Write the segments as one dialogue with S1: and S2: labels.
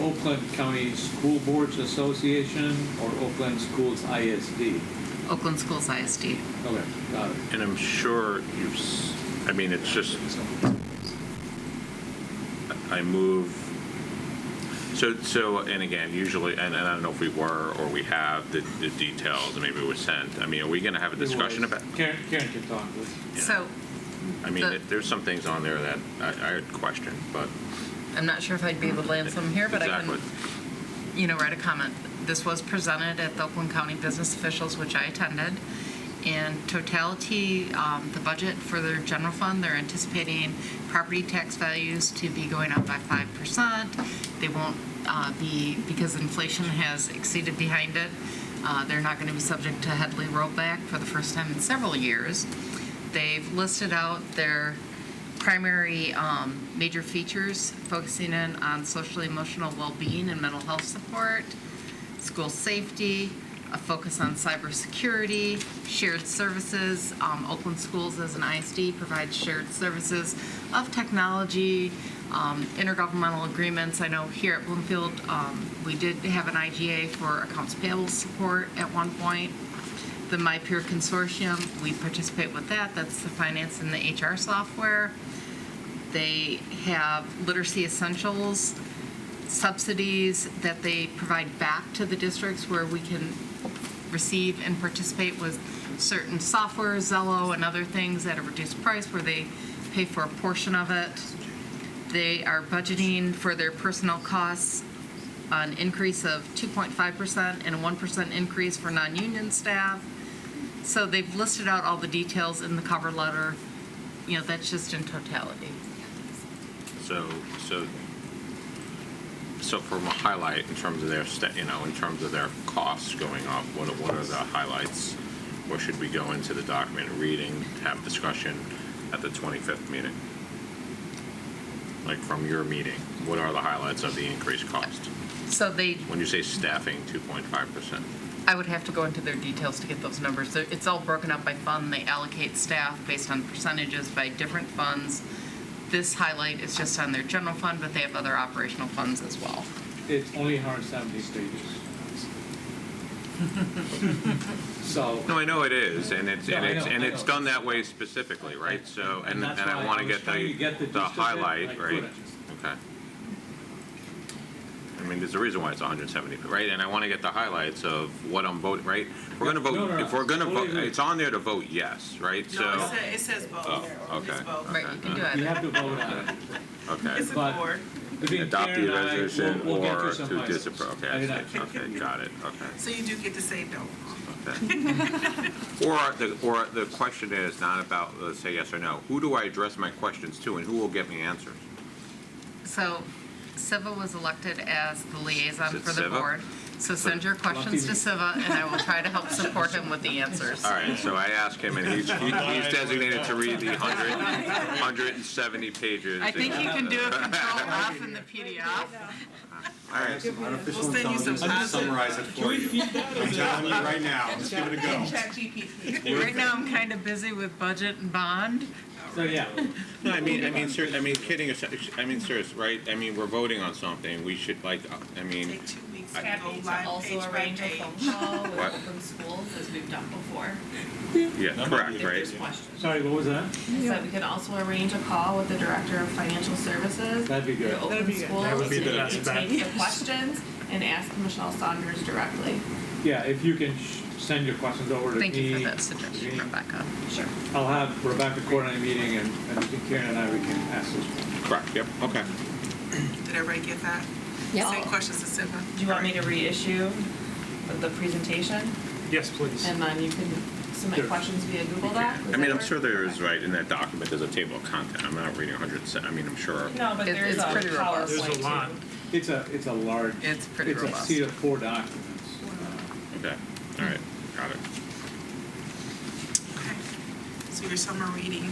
S1: Oakland County School Boards Association or Oakland Schools ISD?
S2: Oakland Schools ISD.
S1: Okay, got it.
S3: And I'm sure you've, s- I mean, it's just, I move, so, so, and again, usually, and and I don't know if we were or we have the, the details, and maybe it was sent. I mean, are we going to have a discussion about?
S1: Karen, Karen can talk to us.
S3: Yeah.
S2: So
S3: I mean,
S2: the-
S3: there- there's some things on there that I, I would question, but.
S2: I'm not sure if I'd be able to land some here, but I
S3: Exactly.
S2: can, you know, write a comment. This was presented at the Oakland County Business Officials, which I attended. In totality, um, the budget for their general fund, they're anticipating property tax values to be going up by 5%. They won't uh, be, because inflation has exceeded behind it, uh, they're not going to be subject to Headley rollback for the first time in several years. They've listed out their primary um, major features, focusing in on social emotional well-being and mental health support, school safety, a focus on cybersecurity, shared services. Um, Oakland Schools as an ISD provides shared services of technology, um, intergovernmental agreements. I know here at Bloomfield, um, we did have an IGA for accounts payable support at one point the My Peer Consortium, we participate with that. That's the finance and the HR software. They have literacy essentials subsidies that they provide back to the districts where we can receive and participate with certain software, Zello and other things at a reduced price where they pay for a portion of it. They are budgeting for their personnel costs an increase of 2.5% and a 1% increase for non-union staff. So they've listed out all the details in the cover letter. You know, that's just in totality.
S3: So, so, so from a highlight in terms of their, sta- you know, in terms of their costs going up, what are, what are the highlights? Or should we go into the document reading, have discussion at the 25th meeting? Like from your meeting, what are the highlights of the increased cost?
S2: So they,
S3: When you say staffing 2.5%?
S2: I would have to go into their details to get those numbers. They're- It's all broken up by fund. They allocate staff based on percentages by different funds. This highlight is just on their general fund, but they have other operational funds as well.
S1: It's only 170 pages. So,
S3: No, I know it is, and it's,
S1: No,
S3: and
S1: I
S3: it's,
S1: know,
S3: and
S1: I
S3: it's
S1: know.
S3: done that way specifically, right? So, and,
S1: And
S3: and
S1: that's why
S3: I
S1: I
S3: want to
S1: was
S3: get
S1: trying to get
S3: the,
S1: the
S3: the
S1: gist of it, I
S3: highlight, right?
S1: couldn't.
S3: Okay. I mean, there's a reason why it's 170, right? And I want to get the highlights of what I'm voting, right? We're going to
S1: Yeah, no, no,
S3: vote,
S1: no,
S3: if we're going to
S1: totally
S3: vote,
S1: agree.
S3: it's on there to vote yes, right?
S4: No, it
S3: So,
S4: says, it says both.
S3: Oh,
S4: It's
S3: okay.
S4: both.
S2: Right, you can do
S1: you
S2: it.
S1: have to vote on it.
S3: okay.
S4: It's a
S1: But-
S4: board.
S1: Between
S3: Adopt
S1: Karen and
S3: the
S1: I, we'll- we'll
S3: resolution
S1: get you
S3: or
S1: some
S3: to
S1: items.
S3: disapprove. Okay,
S1: I
S3: I
S1: did
S3: see.
S1: not-
S3: okay, got it, okay.
S4: So you do get to say no.
S3: Or the, or the question is not about, let's say yes or no, who do I address my questions to and who will get me answers?
S2: So Siva was elected as the
S3: Is
S2: liaison
S3: it
S2: for the
S3: Siva?
S2: board. So send your questions to Siva, and I will try to help support him with the answers.
S3: All right, so I asked him, and he's, he- he's designated to read the 100, 170 pages.
S2: I think you can do a control F in the PDF.
S3: All right,
S4: We'll send you some
S1: I'm
S4: positive.
S5: summarize it for you. I'm telling you right now, just give it a go.
S4: Chat GPT.
S2: Right now, I'm kind of busy with budget and bond.
S1: So, yeah,
S3: No, I mean, I mean, serious, I mean, kidding, aside- I mean, serious, right? I mean, we're voting on something, we should like, I mean,
S4: Take two weeks to go
S6: Happy to
S4: live
S6: also
S4: page by
S6: arrange a
S4: page.
S6: phone call with
S3: What?
S6: open schools, as we've done before,
S3: yeah, correct,
S6: if there's
S3: right?
S6: questions.
S1: sorry, what was that?
S6: So we can also arrange a call with the Director of Financial Services.
S1: That'd be good.
S6: The open schools.
S5: That would be the
S6: and
S5: best
S6: you
S5: bet.
S6: Take the questions and ask Michelle Saunders directly.
S1: Yeah, if you can sh- send your questions over to me.
S2: Thank you for that suggestion, Rebecca.
S6: Sure.
S1: I'll have Rebecca coordinate a meeting and, and between Karen and I, we can ask those.
S3: Correct, yep, okay.
S4: Did everybody get that? Same questions to Siva.
S6: Do you want me to reissue the presentation?
S5: Yes, please.
S6: And then you can submit
S1: Sure.
S6: questions via Google Doc? Does
S3: I mean,
S6: that
S3: I'm
S6: work?
S3: sure there is, right, in that document, there's a table of content, I'm not reading 100, I mean, I'm sure.
S6: No, but
S2: It-
S6: there's a
S2: it's pretty
S6: PowerPoint
S2: robust.
S6: too.
S5: There's a lot.
S1: It's a, it's a large.
S2: It's pretty
S1: It's a
S2: robust.
S1: seat of four documents.
S3: Okay, all right, got it.
S4: Okay. So your summer reading.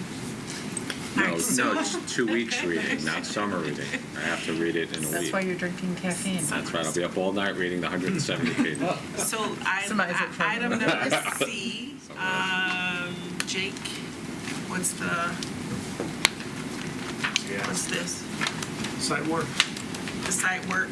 S4: All
S3: No,
S4: right, so-
S3: no, it's two weeks reading, not summer reading. I have to read it in a
S2: That's
S3: week.
S2: why you're drinking caffeine.
S3: That's right, I'll be up all night reading the 170 pages.
S4: So I,
S2: Somebody's at
S4: I- item number C,
S2: Ah.
S4: um, Jake, what's the, what's this?
S5: Site work.
S4: The site work